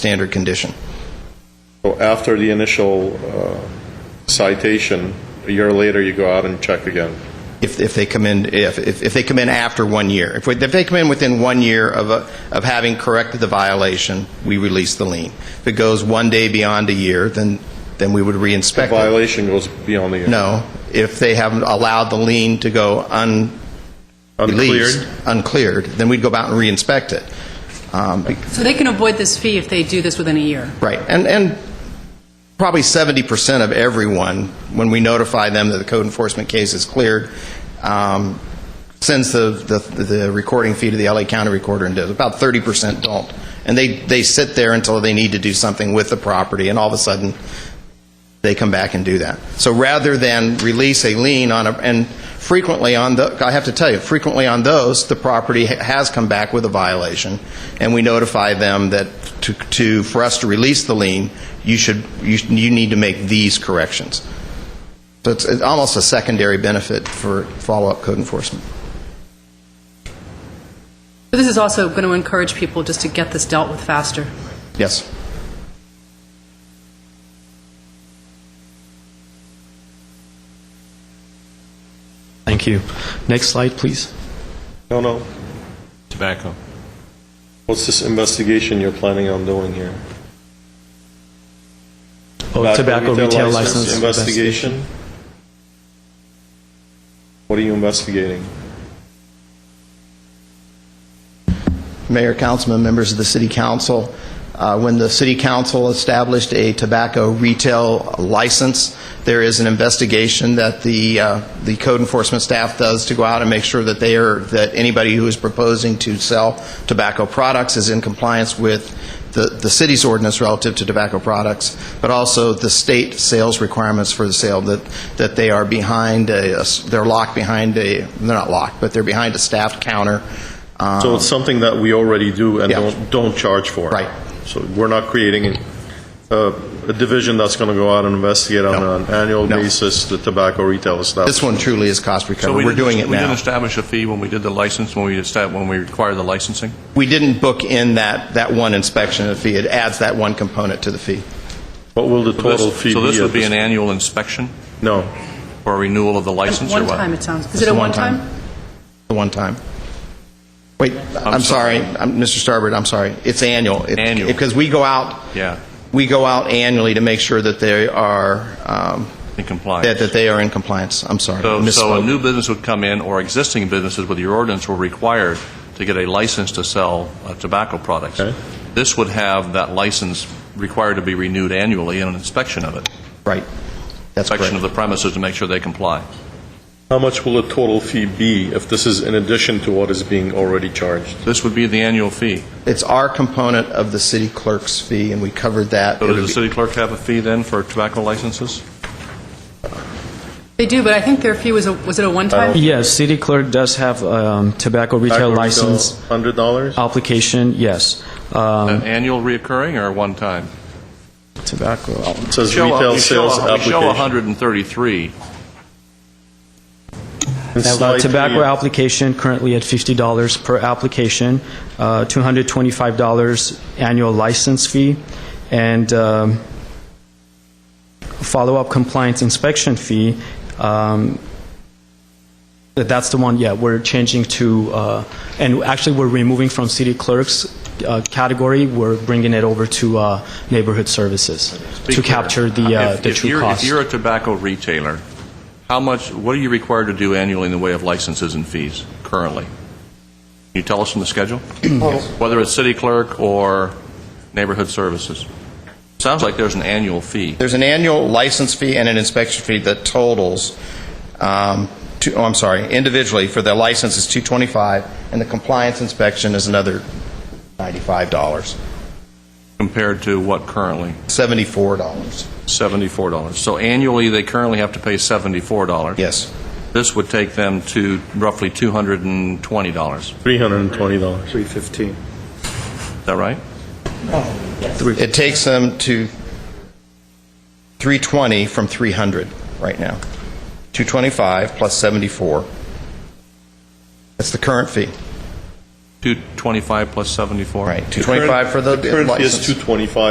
standard condition. So after the initial uh, citation, a year later, you go out and check again. If, if they come in, if, if if they come in after one year. If, we- if they come in within one year of, a- of having corrected the violation, we release the lien. If it goes one day beyond a year, then, then we would reinspect it. Violation goes beyond the year. No, if they haven't allowed the lien to go un- released, uncleared, then we'd go out and reinspect it. Um, be- So they can avoid this fee if they do this within a year? Right, and, and probably 70% of everyone, when we notify them that the code enforcement case is cleared, um, sends the, the the recording fee to the LA County Recorder and does. About 30% don't. And they, they sit there until they need to do something with the property, and all of a sudden, they come back and do that. So rather than release a lien on a, and frequently on the, I have to tell you, frequently on those, the property ha- has come back with a violation, and we notify them that to, to for us to release the lien, you should, you, sh- you need to make these corrections. So it's, it's almost a secondary benefit for follow-up code enforcement. But this is also going to encourage people just to get this dealt with faster. Yes. Thank you. Next slide, please. No, no. Tobacco. What's this investigation you're planning on doing here? Oh, tobacco retail license. Investigation? What are you Um, investigating? Mayor, councilmen, members of the city council. Uh, When the city council established a tobacco retail license, there is an investigation that the uh, the code enforcement staff does to go out and make sure that they are, that anybody who is proposing to sell tobacco products is in compliance with the the city's ordinance relative to tobacco products, but also the state sales requirements for the sale, that that they are behind, a- a s- they're locked behind a, they're not locked, but they're behind a staffed counter. Um, So it's something that we already do and Yeah. don't, don't charge for. Right. So we're not creating a, a division that's going to go out and investigate No. on an annual No. basis the tobacco retail establishment. This one truly is cost So we recovery. We're didn't- doing it We didn't now. establish a fee when we did the license, when we established, when we required the licensing? We didn't book in that, that one inspection of the fee. It adds that one component to the fee. What will the So this- total fee be? So this at would be an this- annual inspection No. or renewal of the license or One what? time, it sounds, is It's it a a one-time. one-time? The one time. Wait, I'm sorry, sorry. I'm- Mr. Starbird, I'm sorry. It's annual. It- Annual. Because we go out. Yeah. We go out annually to make sure that they are. um, In compliance. That, that they are in compliance. I'm sorry. So- So a Misspoke. new business would come in, or existing businesses with your ordinance were required to get a license to sell uh, tobacco products. Okay. This would have that license required to be renewed annually and an inspection of it. Right. That's correct. Inspection of the premises to make sure they comply. How much will the total fee be if this is in addition to what is being already charged? This would be the annual fee. It's our component of the city clerk's fee, and we covered that. So It'll does the be- city clerk have a fee then for tobacco licenses? They do, but I think their fee was, a was it a one-time? Yes, city clerk does have um, tobacco retail license Hundred dollars? application, yes. An Um, annual reoccurring or one time? Tobacco, It says Show a- retail you show a- sales You show application. 133. And Now, slightly- Tobacco application currently at $50 per application, uh, $225 annual license fee, and um, follow-up compliance inspection fee. um, that- That's the one, yeah, we're changing to, uh, and actually, we're removing from city clerk's uh, category, we're bringing it over to uh, neighborhood services Be to clear. capture the uh, If- the if true you're- cost. If you're a tobacco retailer, how much, what are you required to do annually in the way of licenses and fees currently? Can you tell us from the schedule? Whether it's city clerk or neighborhood services? Sounds like there's an annual fee. There's an annual license fee and an inspection fee that totals, um, two, oh, I'm sorry, individually for the license is 225 and the compliance inspection is another $95, Compared to what currently? $74. $74. So annually, they currently have to pay $74. Yes. This would take them to roughly $220. $320. 315. Is that right? It takes them to 320 from 300 right now. 225 plus 74. That's the current fee. 225 plus 74? Right, 225 for the The current is license. 225